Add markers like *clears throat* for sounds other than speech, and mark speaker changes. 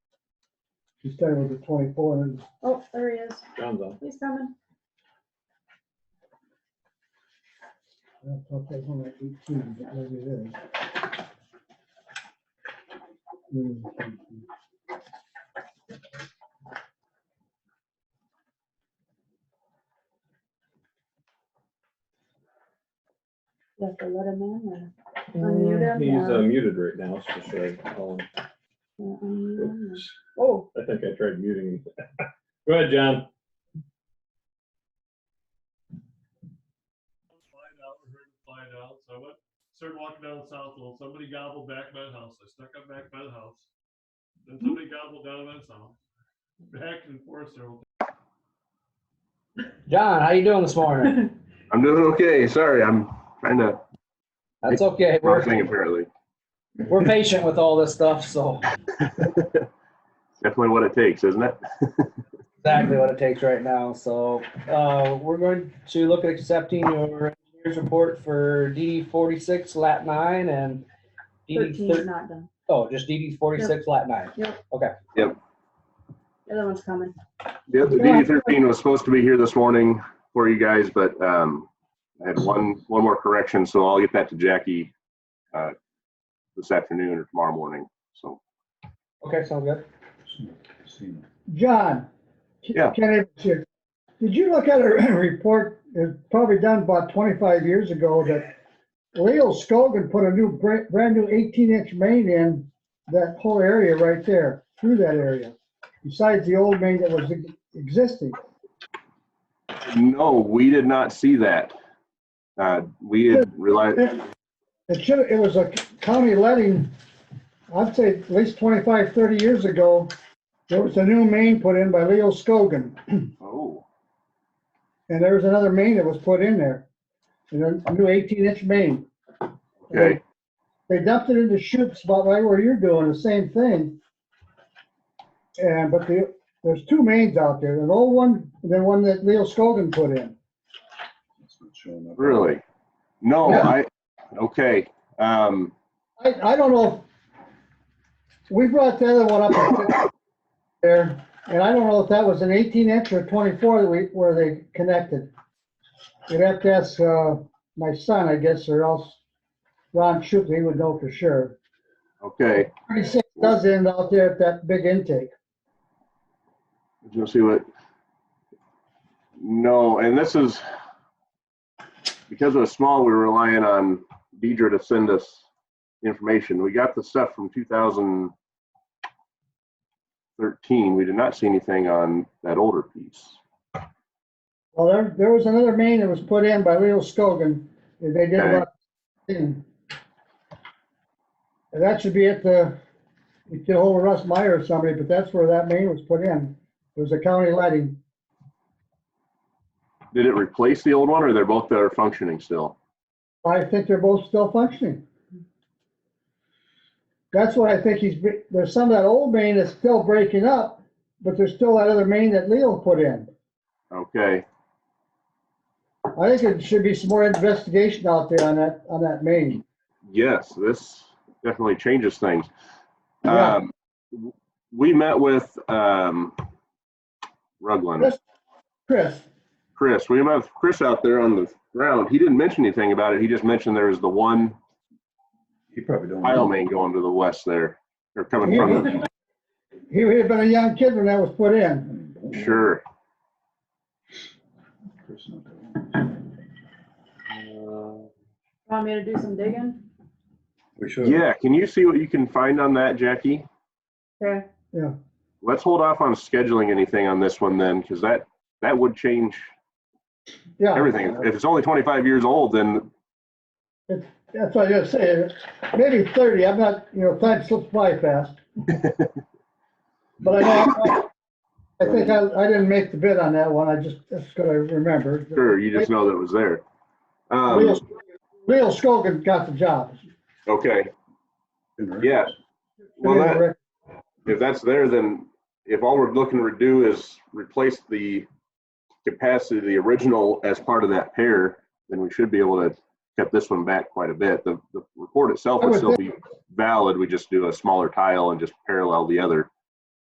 Speaker 1: She's staying with the twenty-four and
Speaker 2: Oh, there he is.
Speaker 3: John's on.
Speaker 2: He's coming.
Speaker 1: I thought that was only eighteen, but maybe it is. Mm, thank you.
Speaker 2: You have to let him in or unmute him.
Speaker 3: He's uh,
Speaker 2: or-
Speaker 3: muted right now, so should I call him?
Speaker 2: or uh, unmute him or- Oh,
Speaker 3: I think I tried muting him. *laughs* Go ahead, John.
Speaker 4: find out, we heard it find out. So I went, started walking down Southwell. Somebody gobbled back my house. I stuck up back by the house. Then somebody gobbled down my house. Back and forth several.
Speaker 5: John, how you doing this morning?
Speaker 6: I'm doing okay. Sorry, I'm trying to
Speaker 5: That's okay.
Speaker 6: wrong
Speaker 5: We're,
Speaker 6: thing apparently.
Speaker 5: we're patient with all this stuff, so
Speaker 6: Definitely what it takes, isn't it? *laughs*
Speaker 5: exactly what it takes right now. So uh, we're going to look at accepting your engineer's report for DD forty-six lat nine and DD
Speaker 2: 13 is
Speaker 5: thir-
Speaker 2: not done.
Speaker 5: oh, just DD forty-six lat nine.
Speaker 2: The other one's coming.
Speaker 6: The other- the DD thirteen was supposed to be here this morning for you guys, but um, I had one, one more correction, so I'll get that to Jackie uh, this afternoon or tomorrow morning. So,
Speaker 5: Okay, sounds good.
Speaker 1: John. Ke-
Speaker 6: Yeah.
Speaker 1: Ken Evans here. Did you look at a *clears throat* report, it's probably done about twenty-five years ago, that Leo Scogan put a new, brand, brand new eighteen-inch main in that whole area right there, through that area, besides the old main that was e- existing.
Speaker 6: no, we did not see that. Uh, We had realized,
Speaker 1: It it should, it was a county letting, I'd say at least 25, 30 years ago, there was a new main put in by Leo Scogan,
Speaker 6: oh,
Speaker 1: and there was another main that was put in there. And a- a new 18-inch main.
Speaker 6: okay,
Speaker 1: They dumped it into chutes about right where you're doing, the same thing. And, but the, there's two mains out there, an old one, and then one that Leo Scogan put in.
Speaker 6: really? No, I, okay. Um,
Speaker 1: I, I don't know. if- We brought the other one up there, and I don't know if that was an eighteen inch or twenty-four that we, where they connected. You'd have to ask, uh, my son, I guess, or else Ron Shoup, he would know for sure.
Speaker 6: Okay.
Speaker 1: Thirty-six does end out there at that big intake.
Speaker 6: You'll see what? No, and this is, because it was small, we were relying on Deidre to send us information. We got the stuff from 2013. We did not see anything on that older piece.
Speaker 1: Well, there, there was another main that was put in by Leo Scogan, and they did
Speaker 6: Okay.
Speaker 1: what? And that should be at the, you get hold of Russ Meyer or somebody, but that's where that main was put in. It was a county lighting.
Speaker 6: Did it replace the old one, or they're both that are functioning still?
Speaker 1: I think they're both still functioning. That's what I think he's, bre- there's some of that old main that's still breaking up, but there's still that other main that Leo put in.
Speaker 6: Okay,
Speaker 1: I think there should be some more investigation out there on that, on that main.
Speaker 6: yes, this definitely changes things.
Speaker 1: Yeah.
Speaker 6: Um, w- We met with, um, Rugland.
Speaker 1: Chris?
Speaker 6: Chris. We have Chris out there on the ground. He didn't mention anything about it. He just mentioned there was the one
Speaker 7: You probably don't.
Speaker 6: tile main going to the west there, or coming from the,
Speaker 1: He he had been a young kid when that was put in.
Speaker 6: sure.
Speaker 3: Uh,
Speaker 2: Want me to do some digging?
Speaker 7: We should.
Speaker 6: Yeah, can you see what you can find on that, Jackie?
Speaker 2: Okay.
Speaker 6: Let's hold off on scheduling anything on this one then, because that, that would change
Speaker 1: Yeah,
Speaker 6: everything. If it's only twenty-five years old, then,
Speaker 1: that's what I was saying. Maybe thirty, I'm not, you know, time slips by
Speaker 6: *laughs*
Speaker 1: fast. But I, know- I think I, I didn't make the bid on that one, I just, that's gonna remember.
Speaker 6: sure, you just know that it was there. Um,
Speaker 1: Leo Leo Scogan got the job.
Speaker 6: okay, yeah. Well, that, if that's there, then if all we're looking to do is replace the capacity of the original as part of that pair, then we should be able to cut this one back quite a bit. The, the report itself
Speaker 1: I
Speaker 6: would
Speaker 1: would
Speaker 6: still be valid. We just do a smaller tile and just parallel the other.